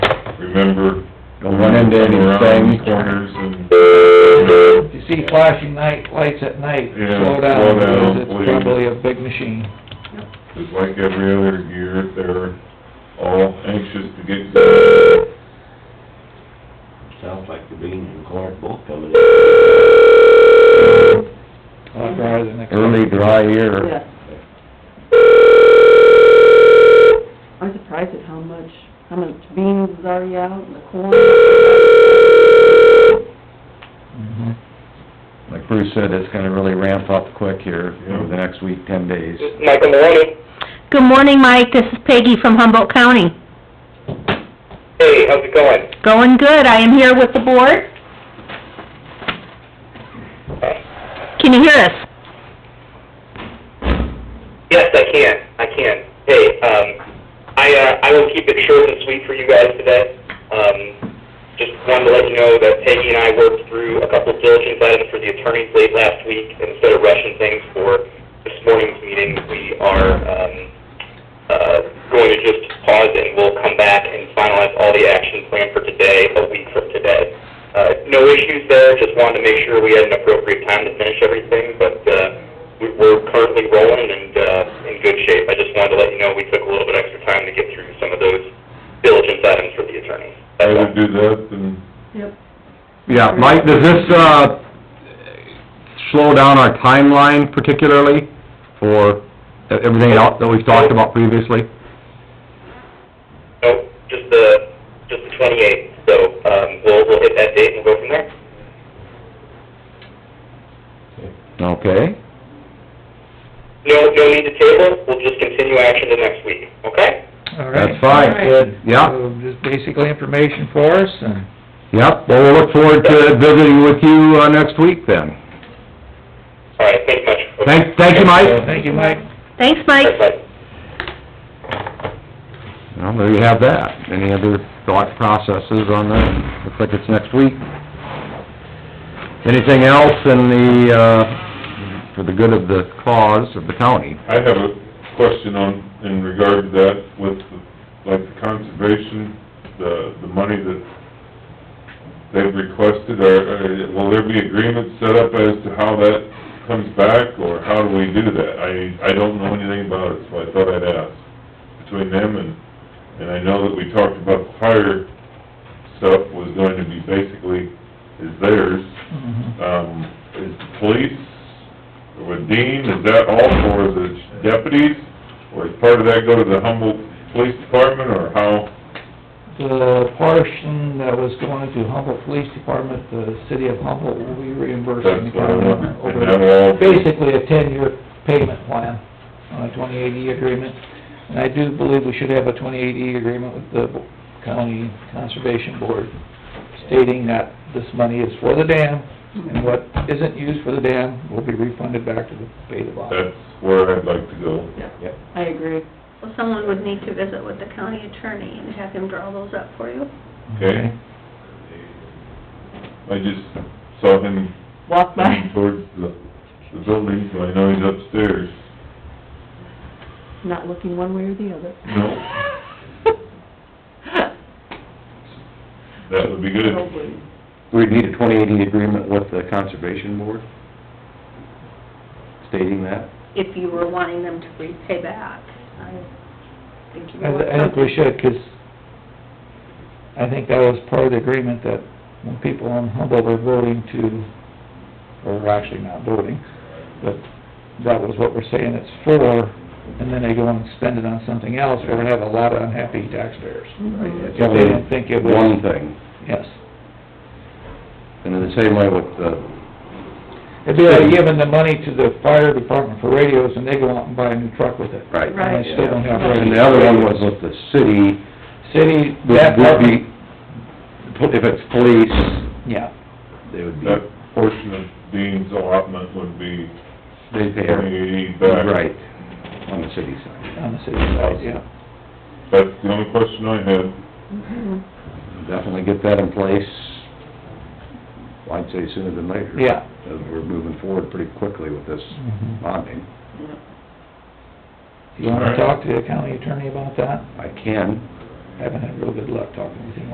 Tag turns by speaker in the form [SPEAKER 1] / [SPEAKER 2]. [SPEAKER 1] into
[SPEAKER 2] Around
[SPEAKER 1] anything.
[SPEAKER 2] corners and,
[SPEAKER 3] If you see flashing night, lights at night,
[SPEAKER 2] Yeah,
[SPEAKER 3] slow
[SPEAKER 2] slow
[SPEAKER 3] down,
[SPEAKER 2] down,
[SPEAKER 3] because it's
[SPEAKER 2] please.
[SPEAKER 3] probably a big machine.
[SPEAKER 2] just like every other year, they're all anxious to get to
[SPEAKER 4] Sounds like the beans and corn both coming in.
[SPEAKER 3] A lot drier than expected.
[SPEAKER 1] Early dry year.
[SPEAKER 5] Yeah. I'm surprised at how much, how much beans is already out and the corn.
[SPEAKER 3] Mhm.
[SPEAKER 1] Like Bruce said, it's gonna really ramp up quick here over the next week, ten days.
[SPEAKER 6] Michael Maloney.
[SPEAKER 7] Good morning, Mike. This is Peggy from Humboldt County.
[SPEAKER 6] Hey, how's it going?
[SPEAKER 7] Going good. I am here with the board. Can you hear us?
[SPEAKER 6] Yes, I can, I can. Hey, um, I, uh, I will keep it short and sweet for you guys today. Um, just wanted to let you know that Peggy and I worked through a couple of diligence items for the attorneys late last week. Instead of rushing things for this morning's meeting, we are, um, uh, going to just pause and we'll come back and finalize all the action plan for today, a week from today. Uh, no issues there, just wanted to make sure we had an appropriate time to finish everything, but, uh, we- we're currently rolling and, uh, in good shape. I just wanted to let you know we took a little bit extra time to get through some of those diligence items for the attorneys. That's all.
[SPEAKER 2] Rather do that than,
[SPEAKER 5] Yep.
[SPEAKER 1] Yeah, Mike, does this, uh, slow down our timeline particularly for e-, everything else that we've talked about previously?
[SPEAKER 6] Nope, just the, just the twenty-eighth, so, um, we'll, we'll hit that date and we'll go from there.
[SPEAKER 1] Okay.
[SPEAKER 6] No, no need to table, we'll just continue action to next week, okay?
[SPEAKER 3] All right.
[SPEAKER 1] That's fine.
[SPEAKER 3] Good.
[SPEAKER 1] Yeah.
[SPEAKER 3] So just basically information for us, and
[SPEAKER 1] Yep, well, we'll look forward to visiting with you, uh, next week then.
[SPEAKER 6] All right, thanks much.
[SPEAKER 1] Thank, thank you, Mike.
[SPEAKER 3] thank you, Mike.
[SPEAKER 7] Thanks, Mike.
[SPEAKER 6] Bye, bye.
[SPEAKER 1] Well, there you have that. Any other thought processes on that? Looks like it's next week. Anything else in the, uh, for the good of the cause of the county?
[SPEAKER 2] I have a question on, in regard to that with, the- like, the conservation, the, the money that they've requested, or, will there be agreement set up as to how that comes back, or how do we do that? I, I don't know anything about it, so I thought I'd ask, between them and, and I know that we talked about the fire stuff was going to be basically, is theirs,
[SPEAKER 3] Mhm.
[SPEAKER 2] um, is the police, with Dean, is that all for the deputies? Or is part of that go to the Humboldt Police Department, or how?
[SPEAKER 3] The portion that was going to Humboldt Police Department, the city of Humboldt will be reimbursing the
[SPEAKER 2] That's what I
[SPEAKER 3] county
[SPEAKER 2] wondered. And
[SPEAKER 3] over
[SPEAKER 2] that'll all be,
[SPEAKER 3] basically a ten-year payment plan on a twenty-eighty agreement. And I do believe we should have a twenty-eighty agreement with the county conservation board stating that this money is for the dam, and what isn't used for the dam will be refunded back to the pay the bond.
[SPEAKER 2] that's where I'd like to go.
[SPEAKER 5] Yep. I agree.
[SPEAKER 8] Well, someone would need to visit with the county attorney and have him draw those up for you.
[SPEAKER 2] Okay. I just saw him
[SPEAKER 5] Walk
[SPEAKER 2] coming
[SPEAKER 5] by,
[SPEAKER 2] towards the, the building, so I know he's upstairs.
[SPEAKER 5] not looking one way or the other.
[SPEAKER 2] That would be good.
[SPEAKER 5] Probably.
[SPEAKER 1] We'd need a twenty-eighty agreement with the conservation board stating that.
[SPEAKER 8] If you were wanting them to repay back, I think you
[SPEAKER 3] I,
[SPEAKER 8] would want
[SPEAKER 3] I think we should, 'cause I think that was part of the agreement that when people on Humboldt were voting to, or were actually not voting, but that was what we're saying it's for, and then they go and spend it on something else, we're gonna have a lot of unhappy taxpayers.
[SPEAKER 5] Mhm.
[SPEAKER 3] If they didn't think it was,
[SPEAKER 1] One thing,
[SPEAKER 3] yes.
[SPEAKER 1] and in the same way with the
[SPEAKER 3] It'd be like giving the money to the fire department for radios, and they go out and buy a new truck with it.
[SPEAKER 1] Right.
[SPEAKER 3] And they still don't have radios.
[SPEAKER 1] And the other one was with the city,
[SPEAKER 3] City, that
[SPEAKER 1] would would
[SPEAKER 3] part,
[SPEAKER 1] be, if it's police,
[SPEAKER 3] yeah,
[SPEAKER 1] they would be,
[SPEAKER 2] That portion of Dean's allotment would be
[SPEAKER 1] they'd pay her.
[SPEAKER 2] twenty-eighty back.
[SPEAKER 1] Right, on the city side.
[SPEAKER 3] on the city side, yeah.
[SPEAKER 2] That's the only question I had.
[SPEAKER 5] Mhm.
[SPEAKER 1] Definitely get that in place, well, I'd say sooner than later.
[SPEAKER 3] Yeah. Mm-hmm.
[SPEAKER 1] Because we're moving forward pretty quickly with this bonding.
[SPEAKER 5] Yep.
[SPEAKER 3] You wanna talk to the county attorney about that?
[SPEAKER 1] I can,
[SPEAKER 3] Haven't had real good luck talking with him